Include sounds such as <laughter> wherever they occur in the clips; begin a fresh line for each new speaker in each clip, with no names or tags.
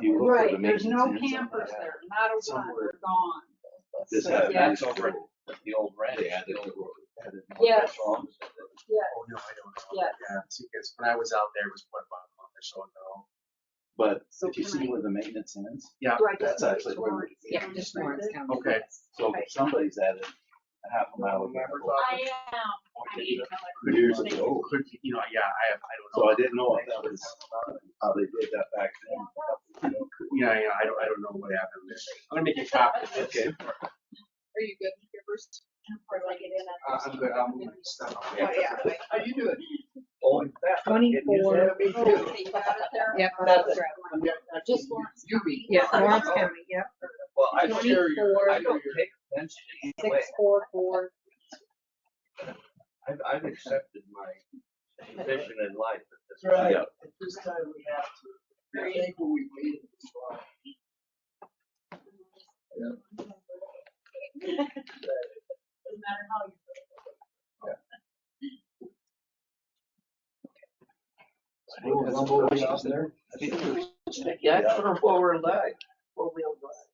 You look for the
Right, there's no
maintenance and stuff like
campers
that.
there, not a one,
Somewhere.
they're gone.
This
So,
happened.
yeah.
It's over at
the old ranch.
They added to it.
Yes.
Restaurant.
Yeah,
Oh, no, I don't know.
Yeah.
because when I was out there, it was what, about a month or so ago.
But
So
if you
can
see
I-
where the maintenance ends,
Yeah,
do I just
that's
move
actually where-
towards the
Yeah,
end
just
right
Lawrence
there?
County.
Okay.
so
Okay.
somebody's added a half a mile. of
Remember
gravel
I am. I mean,
Years
Could-
ago.
could- You know, yeah, I have, I don't
So
know.
I didn't know if that was how they did that back then.
Yeah, yeah, I don't, I don't know what happened there. I'm gonna make a
<laughs>
copy of this.
Okay.
Are you good with your first? Or like it in
Uh, I'm good, I'm gonna stop.
Oh,
How you doing?
Twenty-four.
Me
Oh, okay, you got it there?
Yep.
Oh, that's right.
Just Lawrence.
You read.
Yeah, Lawrence County, yep,
Well, I don't care, I
twenty-four,
don't take offense to any way.
six, four, four,
I've, I've accepted
<laughs>
my position in life at this
That's right.
Yeah.
At this time, we have to. I think what we waited is wrong.
Doesn't matter how you.
We'll rumble way out there.
point. Yeah, that's sort of what we're like.
Four-wheel drive.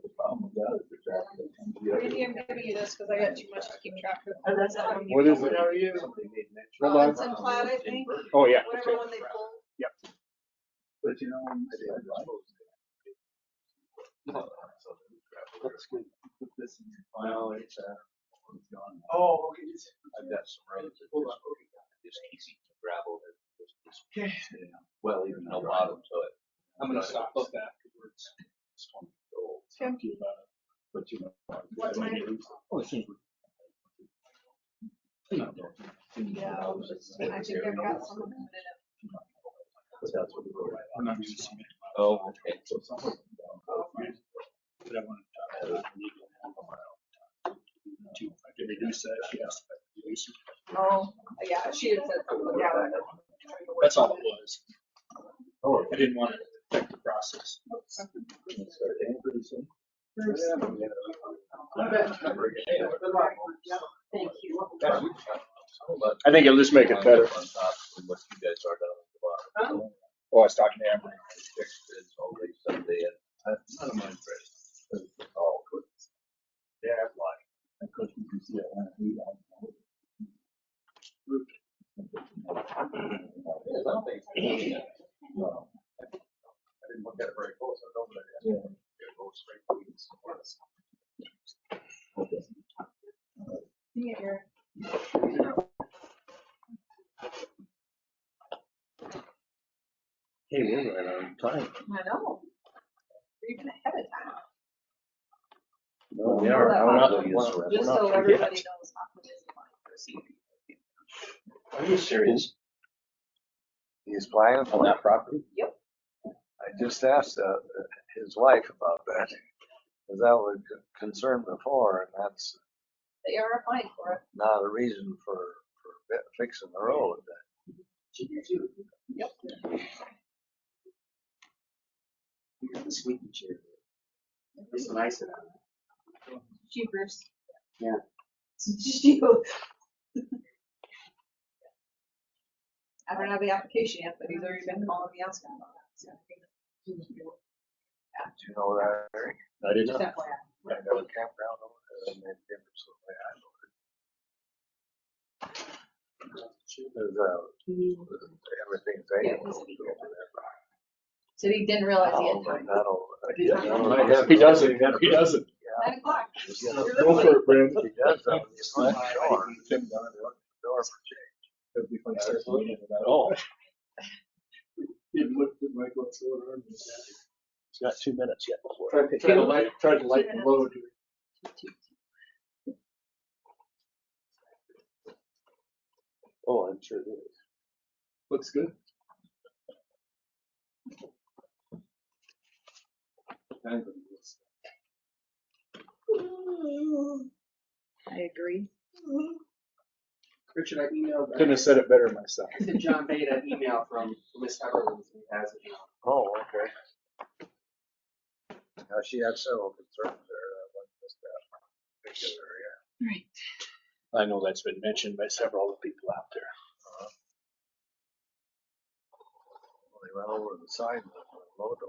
The problem with that is the traffic.
Randy, I'm giving you this because I got too much to keep track of.
And that's how you-
What is it?
How are you?
Somebody made mention.
Robinson Platt, I think,
Oh, yeah.
whatever one they pulled.
But you know, I didn't like. That's good. Put this in your file. It's, uh, it's gone.
Oh, okay.
I've got some roads. that
Hold on.
It's easy to gravel. There's just
Okay.
Well, even.
No bottom to it.
I'm gonna stop.
But afterwards. Just want to go. But you know.
What's my-
Oh, it seems.
Yeah, I was just- I think I've got some of them.
But that's what we were right on.
Oh, okay.
So something.
Oh,
But I want to. To reduce that, yes.
Oh, yeah, she had said something about that.
That's all it was.
Oh.
I didn't want to affect the process.
Good luck.
Thank you.
I think it'll just make it better.
On top of What you guys are down at the bottom.
Oh, I was talking to Amber.
It's always someday.
That's none of my impression. All good. They're like. Of course, you can see it when we don't. No. I didn't look at it very close, I don't. Yeah. It goes straight through this. Okay.
Hey, we're right on time.
I know. You're even ahead of time.
No,
We are.
Well,
We're not-
I'll use-
we're
Just
not-
so everybody knows. not to visit my person.
Are you serious? He's buying on that property?
Yep.
I just asked, uh, his wife about that, because that was a concern before, and that's
They are applying for it.
not a reason for, for fi- fixing the road.
You got the squeaky chair. It's nice enough.
Jeepers.
I don't have the application yet, but he's already been calling me asking about that. so I think-
Did you know that, Eric? I did
Just FYI.
Right, there was a campground over there, and they gave it to me, I know it. There's, uh, everything's
Yeah,
vacant
it was
over
a big
there.
Said he didn't realize he
Oh,
had
but
time.
not over
He
there.
doesn't.
Yeah, no,
He doesn't, he doesn't.
Yeah.
Nine o'clock.
Go for it, Brandon.
He does though, he's on the shore, door for change.
Oh,
It looked at my what's going on.
he's got two minutes yet before.
Tried to, tried to light, tried to light the load.
Oh, I'm sure it is.
Looks good.
I agree.
Richard, I emailed.
Couldn't have said it better
<laughs>
myself.
I sent John Bate an email from Miss Everland who has it now.
Oh, okay. Now, she had several concerns there, that one just that particular area.
I know that's been mentioned by several of the people out there.
Well, They went over the side, of the load